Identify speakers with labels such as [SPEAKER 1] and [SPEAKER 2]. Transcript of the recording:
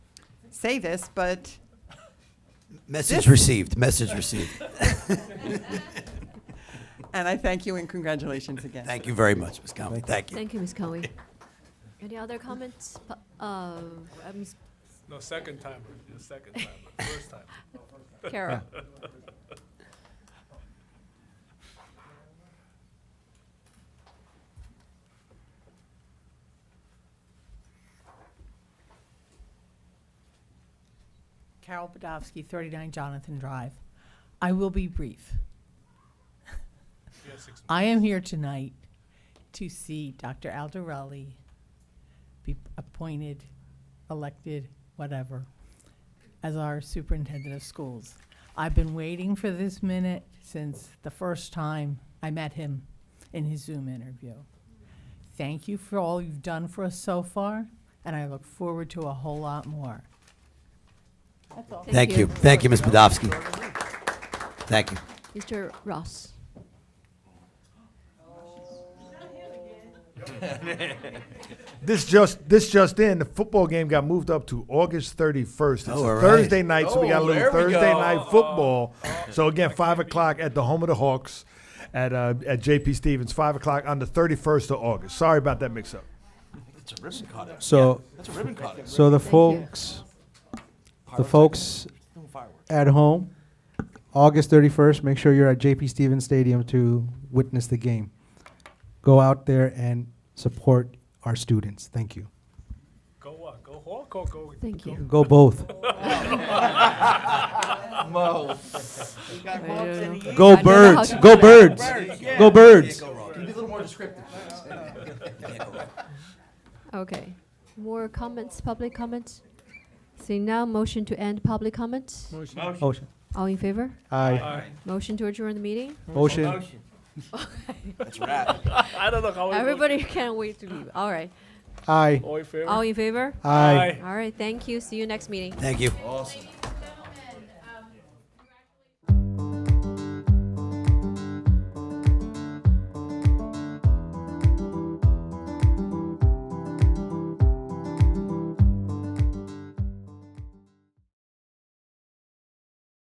[SPEAKER 1] say this, but
[SPEAKER 2] Message
[SPEAKER 1] This-
[SPEAKER 2] received, message received.
[SPEAKER 1] and I thank you and congratulations again.
[SPEAKER 2] Thank you very much, Ms. Conley. Thank you.
[SPEAKER 3] Thank you, Ms. Cohen. Any other comments? Pu- Uh, uh, Ms.
[SPEAKER 4] No, second time, the second time, first time.
[SPEAKER 3] Carol?
[SPEAKER 5] Carol Podofsky, 39 Jonathan Drive. I will be brief.
[SPEAKER 4] Yeah, six-
[SPEAKER 5] I am here tonight to see Dr. Aldarelli be appointed, elected, whatever, as our superintendent of schools. I've been waiting for this minute since the first time I met him in his Zoom interview. Thank you for all you've done for us so far, and I look forward to a whole lot more.
[SPEAKER 2] Thank you. Thank you, Ms. Podofsky. Thank you.
[SPEAKER 3] Mr. Ross?
[SPEAKER 6] This just this just in, the football game got moved up to August 31st. It's
[SPEAKER 2] Oh,
[SPEAKER 6] a
[SPEAKER 2] all right.
[SPEAKER 6] Thursday night, so we got a
[SPEAKER 4] Oh,
[SPEAKER 6] little
[SPEAKER 4] there we
[SPEAKER 6] Thursday
[SPEAKER 4] go. Oh.
[SPEAKER 6] night football. so again, five o'clock at the home of the Hawks, at uh, at JP Stevens, five o'clock on the 31st of August. Sorry about that mix-up.
[SPEAKER 2] That's a ribbon cutting.
[SPEAKER 7] So,
[SPEAKER 2] That's a ribbon cutting.
[SPEAKER 7] so the
[SPEAKER 3] you.
[SPEAKER 7] folks, the folks at home, August thirty-first, make sure you're at JP Stevens Stadium to witness the game. Go out there and support our students. Thank you.
[SPEAKER 4] Go what, go Hawk or go?
[SPEAKER 3] Thank you.
[SPEAKER 7] Go both. Go
[SPEAKER 3] I don't know how
[SPEAKER 7] birds.
[SPEAKER 3] to
[SPEAKER 7] Go birds. Go birds.
[SPEAKER 3] Okay. More comments, public comments? Seeing now, motion to end public comments?
[SPEAKER 7] Motion.
[SPEAKER 3] All in favor?
[SPEAKER 7] Aye.
[SPEAKER 3] Motion to adjourn the meeting?
[SPEAKER 7] Motion.
[SPEAKER 4] I don't know how. it goes.
[SPEAKER 3] Everybody can't wait to leave. All right.
[SPEAKER 7] Aye.
[SPEAKER 4] All in favor?
[SPEAKER 3] All in favor?
[SPEAKER 7] Aye.
[SPEAKER 3] All right, thank you. See you next meeting.
[SPEAKER 2] Thank you.